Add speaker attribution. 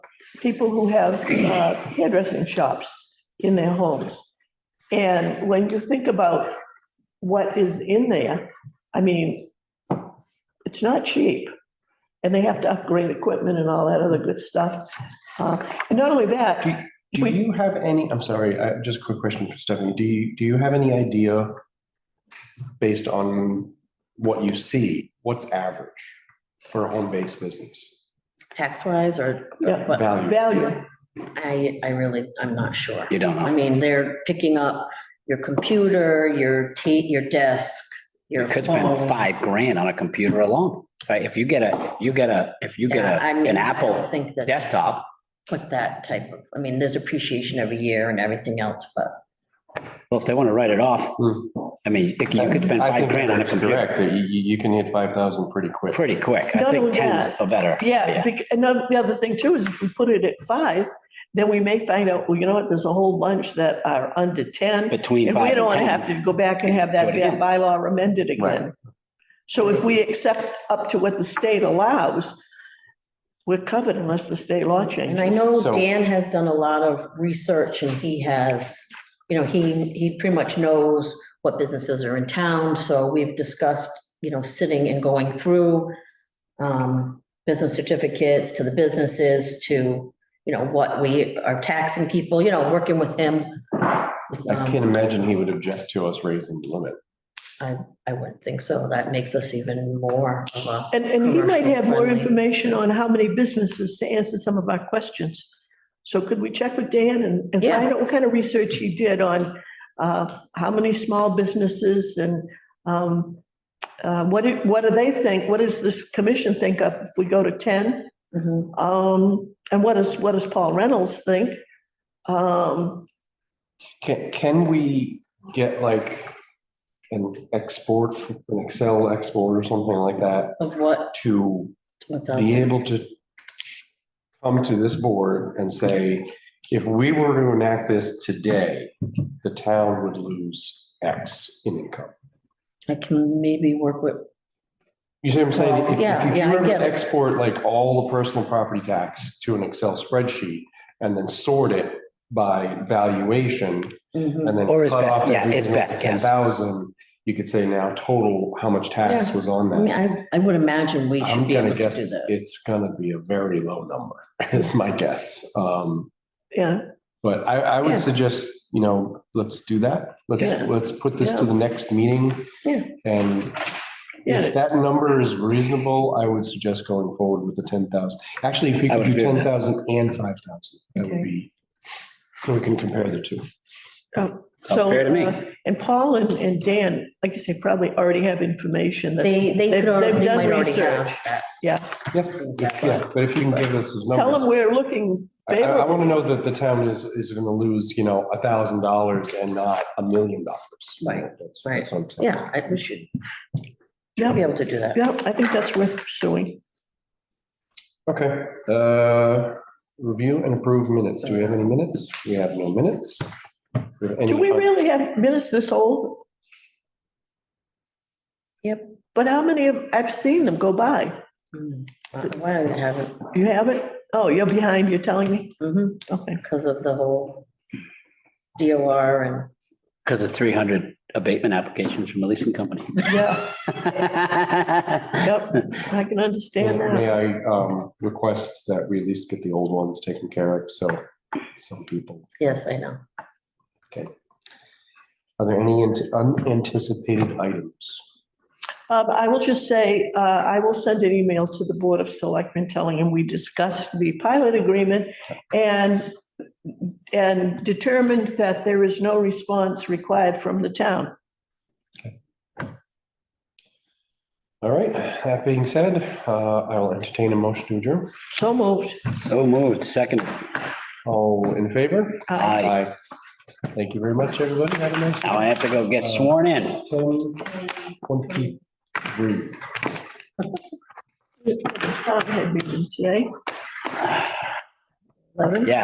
Speaker 1: people who have uh, hairdressing shops in their homes. And when you think about what is in there, I mean, it's not cheap. And they have to upgrade equipment and all that other good stuff. Uh, And not only that,
Speaker 2: Do
Speaker 1: We-
Speaker 2: you have any, I'm sorry, I- just a quick question for Stephanie. Do you, do you have any idea based on what you see, what's average for a home-based business?
Speaker 3: tax wise or?
Speaker 1: Yeah.
Speaker 3: what?
Speaker 2: Value.
Speaker 1: value,
Speaker 3: I, I really, I'm not sure.
Speaker 4: You don't know.
Speaker 3: I mean, they're picking up your computer, your ta, your desk, your
Speaker 4: You could
Speaker 1: Oh.
Speaker 4: spend
Speaker 3: phone.
Speaker 4: five grand on a computer alone, right? If you get a, you get a, if you get
Speaker 3: Yeah,
Speaker 4: a,
Speaker 3: I mean,
Speaker 4: an
Speaker 3: I don't
Speaker 4: Apple
Speaker 3: Think that,
Speaker 4: desktop,
Speaker 3: put that type of, I mean, there's appreciation every year and everything else, but
Speaker 4: well, if they want to write it off,
Speaker 2: Hmm.
Speaker 4: I mean, you could you could spend
Speaker 2: I
Speaker 4: five
Speaker 2: think
Speaker 4: grand on a
Speaker 2: Eric's
Speaker 4: computer
Speaker 2: Correct, that you, you you can hit five thousand pretty quick.
Speaker 4: pretty quick.
Speaker 1: Not
Speaker 4: I
Speaker 1: only
Speaker 4: think tens
Speaker 1: that,
Speaker 4: are better.
Speaker 1: yeah. bec- And the the other thing too is if we put it at five, then we may find out, well, you know what, there's a whole bunch that are under 10.
Speaker 4: Between
Speaker 1: And we
Speaker 4: five
Speaker 1: don't
Speaker 4: and
Speaker 1: want to
Speaker 4: ten.
Speaker 1: have to go back and have that
Speaker 4: Do it again.
Speaker 1: bylaw amended again.
Speaker 2: Right.
Speaker 1: So if we accept up to what the state allows, we're covered unless the state law changes.
Speaker 3: And I know
Speaker 2: So-
Speaker 3: Dan has done a lot of research and he has, you know, he, he pretty much knows what businesses are in town. So we've discussed, you know, sitting and going through um, business certificates to the businesses to, you know, what we are taxing people, you know, working with him. with,
Speaker 2: I
Speaker 3: um,
Speaker 2: can't imagine he would object to us raising the limit.
Speaker 3: I wouldn't think so. That makes us even more of a,
Speaker 1: And, and you might have more
Speaker 3: Commercial-friendly.
Speaker 1: information on how many businesses to answer some of our questions. So could we check with Dan and, and
Speaker 3: Yeah.
Speaker 1: find out what kind of research he did on, uh, how many small businesses and, um, uh, what, do- what do they think? What does this commission think of if we go to ten?
Speaker 2: Mm-hmm.
Speaker 3: Mhm.
Speaker 1: Um, and what does, what does Paul Reynolds think? Um,
Speaker 2: Can, can we get like an export, an Excel export or something like that
Speaker 3: of what,
Speaker 2: to
Speaker 3: what's up.
Speaker 2: be able to come to this board and say, if we were to enact this today, the town would lose X in income.
Speaker 3: I can maybe work with,
Speaker 2: You see what I'm saying? If- if-
Speaker 3: Yeah,
Speaker 2: If you
Speaker 3: yeah, I
Speaker 2: were
Speaker 3: get
Speaker 2: to
Speaker 3: it.
Speaker 2: export like all the personal property tax to an Excel spreadsheet and then sort it by valuation
Speaker 3: Mhm.
Speaker 2: and then
Speaker 4: Or is
Speaker 2: cut
Speaker 4: best-
Speaker 2: off
Speaker 4: yeah, is
Speaker 2: everything
Speaker 4: best,
Speaker 2: ten
Speaker 4: yes.
Speaker 2: thousand, you could say now total, how much tax
Speaker 3: Yeah.
Speaker 2: was on
Speaker 3: I mean,
Speaker 2: that?
Speaker 3: I, I would imagine we should
Speaker 2: I'm
Speaker 3: be able
Speaker 2: gonna
Speaker 3: to do
Speaker 2: guess
Speaker 3: that.
Speaker 2: it's gonna be a very low number, is my guess. Um,
Speaker 1: yeah,
Speaker 2: But I, I
Speaker 1: Yeah.
Speaker 2: would suggest, you know, let's do that.
Speaker 1: Yeah.
Speaker 2: Let's, let's put this to the next meeting.
Speaker 1: Yeah.
Speaker 2: And
Speaker 1: yeah,
Speaker 2: if that number is reasonable, I would suggest going forward with the ten thousand. Actually, if we
Speaker 4: I
Speaker 2: could
Speaker 4: would
Speaker 2: do
Speaker 4: agree
Speaker 2: ten
Speaker 4: with that.
Speaker 2: thousand and five thousand, that
Speaker 1: Okay.
Speaker 2: would be, so we can compare the two.
Speaker 1: uh, so.
Speaker 4: fair to me.
Speaker 1: uh, And Paul and, and Dan, like you say, probably already have information that,
Speaker 3: They, they
Speaker 1: They've-
Speaker 3: could already,
Speaker 1: they've
Speaker 3: they
Speaker 1: done
Speaker 3: might already
Speaker 1: research.
Speaker 3: have that.
Speaker 1: yeah,
Speaker 2: Yeah, yeah, but if you can give us those
Speaker 1: tell them
Speaker 2: numbers.
Speaker 1: we're looking
Speaker 2: I, I
Speaker 1: favorable.
Speaker 2: want to know that the town is, is going to lose, you know, a thousand dollars and not a million dollars.
Speaker 3: Right,
Speaker 2: That's-
Speaker 3: right.
Speaker 2: that's what I'm saying.
Speaker 3: Yeah, I, we should,
Speaker 1: Yeah.
Speaker 3: should be able to do that.
Speaker 1: Yeah, I think that's worth pursuing.
Speaker 2: Okay, uh, review and approve minutes. Do we have any minutes? We have no minutes. Do have any-
Speaker 1: Do we really have minutes this old?
Speaker 3: Yep.
Speaker 1: But how many of, I've seen them go by.
Speaker 3: Mm. Uh, Why I haven't,
Speaker 1: You haven't? Oh, you're behind, you're telling me?
Speaker 3: mhm,
Speaker 1: Okay.
Speaker 3: because of the whole DOR and,
Speaker 4: Because of three hundred abatement applications from a leasing company.
Speaker 1: Yeah, yep, I can understand
Speaker 2: May
Speaker 1: that.
Speaker 2: I, um, request that we at least get the old ones taken care of, so some people.
Speaker 3: yes, I know.
Speaker 2: Are there any ant- unanticipated items?
Speaker 1: Um, I will just say, uh, I will send an email to the Board of Selectmen telling them we discussed the pilot agreement and, and determined that there is no response required from the town.
Speaker 2: All right, that being said, uh, I will entertain a motion to adjourn.
Speaker 1: So moved.
Speaker 4: So moved, second.
Speaker 2: All in favor?
Speaker 1: Aye.
Speaker 4: Aye.
Speaker 2: Thank you very much, everybody. Have a nice
Speaker 4: Now I
Speaker 2: night.
Speaker 4: have to go get sworn in.
Speaker 2: Ten twenty-three.
Speaker 1: The town had meeting today.
Speaker 4: Yeah,